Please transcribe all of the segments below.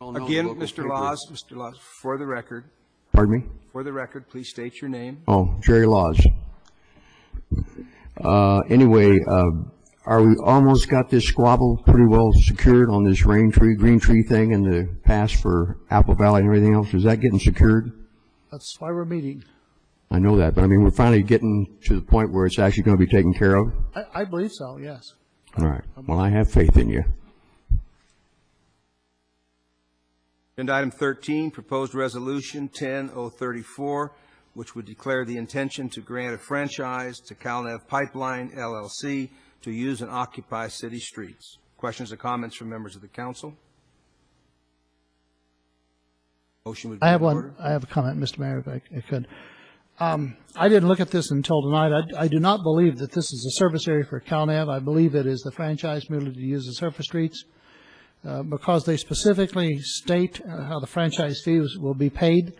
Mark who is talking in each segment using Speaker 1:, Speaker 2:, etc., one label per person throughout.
Speaker 1: all know the
Speaker 2: Again,
Speaker 1: local
Speaker 2: Mr.
Speaker 1: paper.
Speaker 2: Laws, Mr. Laws, for the record,
Speaker 3: Pardon me?
Speaker 2: for the record, please state your name.
Speaker 3: Oh, Jerry Laws. Uh, Anyway, uh, are we almost got this squabble pretty well secured on this rain tree, green tree thing and the pass for Apple Valley and everything else? Is that getting secured?
Speaker 4: That's why we're meeting.
Speaker 3: I know that, but I mean, we're finally getting to the point where it's actually going to be taken care of?
Speaker 4: I, I believe so, yes.
Speaker 3: All right. Well, I have faith in you.
Speaker 2: Agenda item 13, proposed resolution 10034, which would declare the intention to grant a franchise to Calnev Pipeline LLC to use and occupy city streets. Questions or comments from members of the council? Motion would be
Speaker 4: I have
Speaker 2: in
Speaker 4: one,
Speaker 2: order.
Speaker 4: I have a comment, Mr. Mayor, if I I could. Um, I didn't look at this until tonight. I, I do not believe that this is a service area for CalNav. I believe it is the franchise merely to use the surface streets, uh, because they specifically state uh, how the franchise fees will be paid.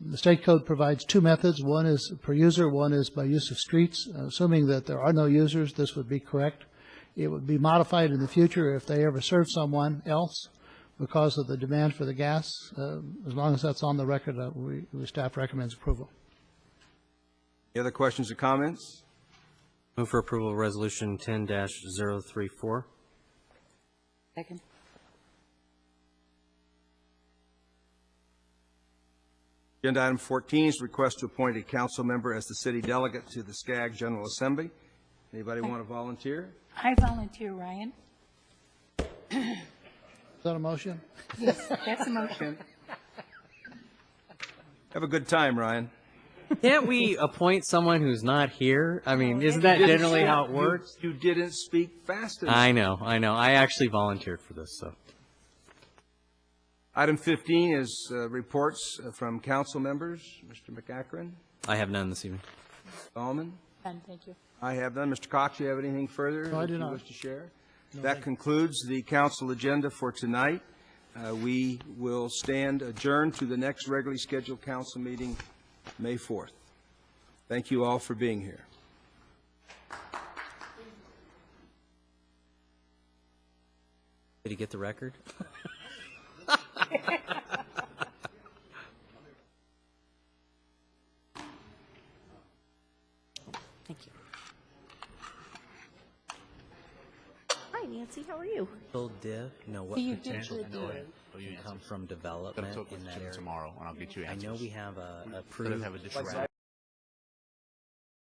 Speaker 4: The state code provides two methods. One is per user, one is by use of streets. Uh, Assuming that there are no users, this would be correct. It would be modified in the future if they ever serve someone else because of the demand for the gas. Uh, As long as that's on the record, uh, we, we staff recommends approval.
Speaker 2: Any other questions or comments?
Speaker 5: Move for approval of Resolution 10-034.
Speaker 6: Second.
Speaker 2: Agenda item 14 is request to appoint a council member as the city delegate to the Skag General Assembly. Anybody want to volunteer?
Speaker 6: I volunteer, Ryan.
Speaker 4: Is that a motion?
Speaker 6: That's a motion.
Speaker 2: Have a good time, Ryan.
Speaker 5: Can't we appoint someone who's not here? I mean, isn't that generally how it works?
Speaker 2: You didn't speak fast enough.
Speaker 5: I know, I know. I actually volunteered for this, so.
Speaker 2: Item 15 is uh, reports uh, from council members. Mr. McAkron,
Speaker 5: I have none this evening.
Speaker 2: Dahlman.
Speaker 6: Done, thank you.
Speaker 2: I have none. Mr. Cox, you have anything further?
Speaker 4: No, I do
Speaker 2: that
Speaker 4: not.
Speaker 2: you wish to share? That concludes the council agenda for tonight. Uh, We will stand adjourned to the next regularly scheduled council meeting, May 4th. Thank you all for being here.
Speaker 5: Did he get the record?
Speaker 6: Thank you.
Speaker 7: Hi, Nancy. How are you?
Speaker 5: Full div? No, what
Speaker 6: So you did
Speaker 5: potential
Speaker 6: the
Speaker 5: can
Speaker 6: div.
Speaker 5: come from development
Speaker 8: I'll talk
Speaker 5: in
Speaker 8: with
Speaker 5: that
Speaker 8: Jim
Speaker 5: area?
Speaker 8: tomorrow, and I'll get you
Speaker 5: I
Speaker 8: answers.
Speaker 5: know we have a approved.
Speaker 8: have additional